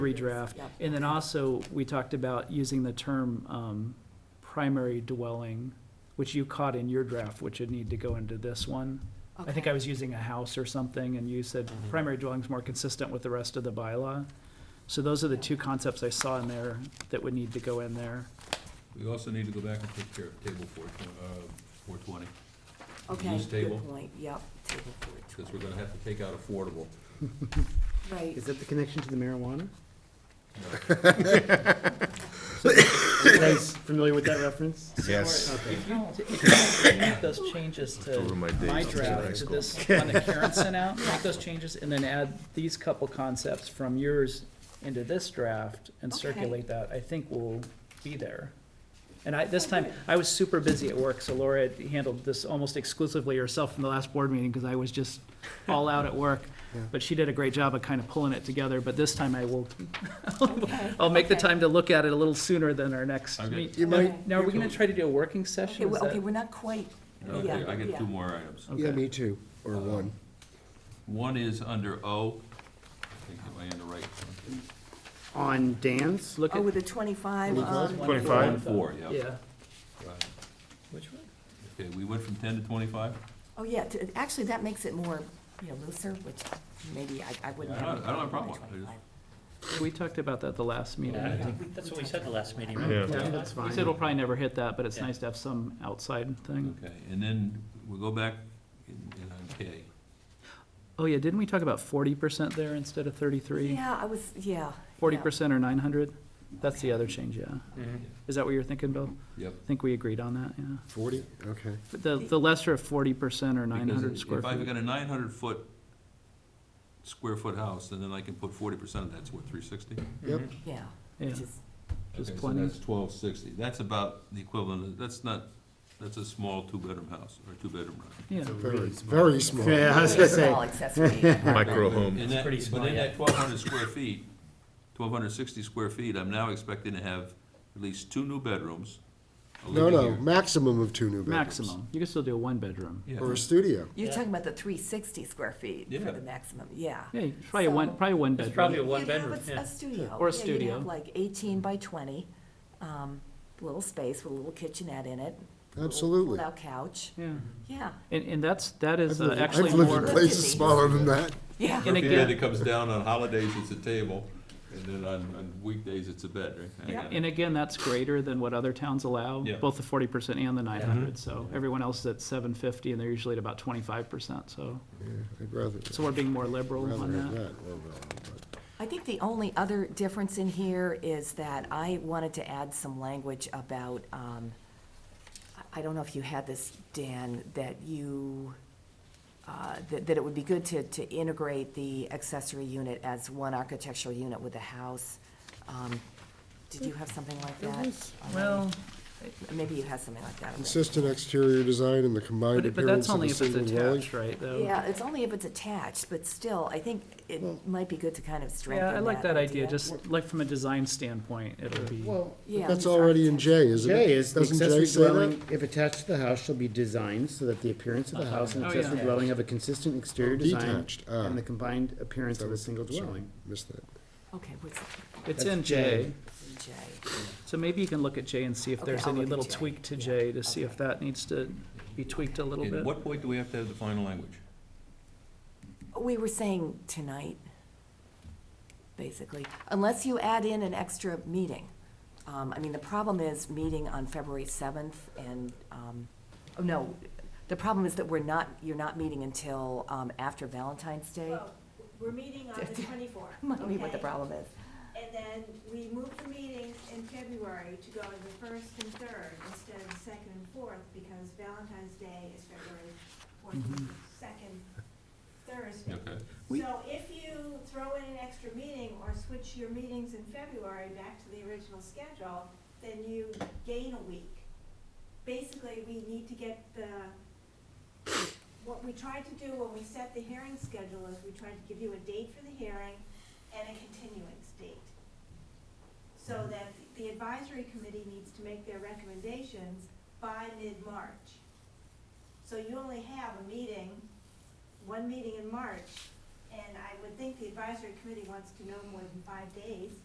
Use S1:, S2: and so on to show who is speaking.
S1: redraft.
S2: Yep.
S1: And then also, we talked about using the term um, primary dwelling, which you caught in your draft, which would need to go into this one. I think I was using a house or something, and you said primary dwelling's more consistent with the rest of the bylaw. So those are the two concepts I saw in there that would need to go in there.
S3: We also need to go back and take care of table four, tw- uh, four twenty,
S2: Okay,
S3: use table.
S2: good point, yep, table four
S3: because we're gonna have to take out affordable.
S2: twenty, right.
S4: Is that the connection to the marijuana? You guys familiar with that reference?
S5: Yes.
S1: If you, if you make those changes to
S5: Over my days
S1: my
S5: in high
S1: draft, to
S5: school.
S1: this one that Karen sent out, make those changes, and then add these couple concepts from yours into this draft and
S2: Okay.
S1: circulate that, I think will be there. And I, this time, I was super busy at work, so Laura had handled this almost exclusively herself from the last board meeting, because I was just all out at work. But she did a great job of kind of pulling it together, but this time I will,
S2: Okay,
S1: I'll make the
S2: okay.
S1: time to look at it a little sooner than our next
S3: Okay.
S1: meet.
S4: You
S2: might-
S1: Now, are we gonna try to do a working
S2: Okay,
S1: session? Is
S2: well, okay,
S1: that-
S2: we're not quite,
S3: Okay,
S2: yeah,
S3: I get
S2: yeah.
S3: two more items. Uh,
S1: Okay.
S5: Yeah, me too, or one.
S3: One is under O, I think, am I in the right? one?
S4: On dance?
S1: Look
S2: Oh,
S1: at
S2: with the twenty-five um, on,
S3: One, four, yeah.
S1: Yeah.
S3: Right.
S1: Which one?
S3: Okay, we went from ten to twenty-five?
S2: oh, yeah, t- actually, that makes it more, you know, looser, which maybe I, I wouldn't
S3: Yeah, I
S2: have.
S3: don't- I don't have a
S2: any
S3: problem. I just-
S2: 25.
S1: We talked about that the last meeting.
S6: Yeah, I
S1: I think.
S6: think that's what we said the last meeting,
S5: Yeah.
S6: right?
S4: Yeah, that's
S1: We
S4: fine.
S1: said it'll probably never hit that, but it's
S6: Yeah.
S1: nice to have some outside thing.
S3: Okay, and then we'll go back in, in on K.
S1: Oh, yeah, didn't we talk about forty percent there instead of thirty-three?
S2: Yeah, I was, yeah.
S1: Forty
S2: yeah.
S1: percent or nine hundred? That's the other change, yeah.
S6: Mhm.
S1: Is that what you're thinking, Bill?
S3: Yep.
S1: I think we agreed on that, yeah.
S5: Forty? Okay.
S1: But The, the lesser of forty percent or nine
S3: Because
S1: hundred square
S3: If I've
S1: feet.
S3: got a nine hundred foot, square foot house, and then I can put forty percent of that's what, three sixty?
S5: Yep.
S6: Mhm.
S2: Yeah,
S1: Yeah,
S2: which is,
S1: There's
S3: Okay, so
S1: plenty.
S3: That's twelve sixty, that's about the equivalent, of- that's not, that's a small two-bedroom house, or two-bedroom room.
S1: yeah.
S5: Very, very small.
S4: Yeah, I was gonna
S2: it's
S4: say,
S2: all accessory.
S5: Micro home.
S3: And that-
S6: pretty small,
S3: But in
S6: yeah.
S3: that twelve hundred square feet, twelve hundred sixty square feet, I'm now expecting to have at least two new bedrooms. a
S5: No,
S3: living
S5: no,
S3: area.
S5: maximum of two new bedrooms.
S1: Maximum. You can still do a one-bedroom.
S3: Yeah.
S5: Or a studio.
S2: You're talking about the three sixty square feet
S3: Yeah.
S2: for the maximum, yeah.
S1: Yeah, you- probably a one,
S2: So-
S1: probably a
S6: It's probably a
S1: one-bedroom.
S6: one
S2: You'd have
S6: bedroom,
S2: a-
S6: yeah.
S2: A studio.
S1: Or a
S2: Yeah, you'd
S1: studio.
S2: have like eighteen by twenty, um, little space with a little kitchenette in it. little
S5: Absolutely.
S2: Pull-out couch,
S1: Yeah,
S2: yeah,
S1: and, and that's, that is
S5: I've
S1: uh,
S5: lived-
S1: actually
S5: I've lived in
S1: more,
S5: places smaller than that.
S2: yeah.
S1: And
S3: If you
S1: again-
S3: had it comes down on holidays, it's a table, and then on, on weekdays, it's a bed, right? I
S2: Yeah.
S3: got it.
S1: and again, that's greater than what other towns allow,
S3: Yeah.
S1: both the forty percent and the nine hundred. So everyone else is at seven fifty, and they're usually at about twenty-five percent, so.
S5: Yeah, I'd rather,
S1: So we're being more liberal
S5: rather
S1: on
S5: have
S1: that.
S5: that. or, uh,
S2: I think the only other difference in here is that I wanted to add some language about, um, I- I don't know if you had this, Dan, that you, uh, that, that it would be good to, to integrate the accessory unit as one architectural unit with the house. Um, Did you have something like that? Um, Maybe you had something like that. already.
S5: Consistent exterior design and the combined
S1: But, but that's
S5: appearance of
S1: only
S5: a
S1: if it's
S5: single dwelling.
S1: attached, right, though?
S2: Yeah, it's only if it's attached, but still, I think it might be good to kind of strengthen
S1: Yeah,
S2: that
S1: I like that idea, just like from a design standpoint, it'll be,
S4: Well,
S2: Yeah,
S5: That's
S2: it's
S5: already in J, isn't it?
S4: J is the
S5: Doesn't J
S4: accessory
S5: say that?
S4: dwelling, if attached to the house, shall be designed so that the appearance of the house and
S1: Oh, yeah.
S4: accessory dwelling have a consistent exterior
S5: Oh,
S4: design
S5: detached, ah.
S4: and the combined appearance of a single
S5: Sorry,
S4: dwelling.
S5: Missed that.
S2: Okay, what's
S1: it's
S4: That's
S1: in
S4: J.
S1: J.
S2: J?
S1: So maybe you can look at J and see if
S2: Okay,
S1: there's
S2: I'll
S1: any
S2: look at
S1: little
S2: J.
S1: tweak to
S2: Yeah,
S1: J to see if
S2: okay.
S1: that needs to be tweaked a little
S3: And At
S1: bit.
S3: what point do we have to have the final language?
S2: We were saying tonight, basically, unless you add in an extra meeting. Um, I mean, the problem is meeting on February seventh and, um, oh, no, the problem is that we're not, you're not meeting until, um, after Valentine's Day.
S7: Well, we're meeting on the twenty-fourth.
S2: Might be what the problem is.
S7: And then we move the meetings in February to go to the first and third instead of the second and fourth because Valentine's Day is February fourteenth, second Thursday.
S3: Okay.
S1: We-
S7: So if you throw in an extra meeting or switch your meetings in February back to the original schedule, then you gain a week. Basically, we need to get the what we tried to do when we set the hearing schedule is we tried to give you a date for the hearing and a continuance date. So that the advisory committee needs to make their recommendations by mid-March. So you only have a meeting, one meeting in March And I would think the advisory committee wants to know more than five days.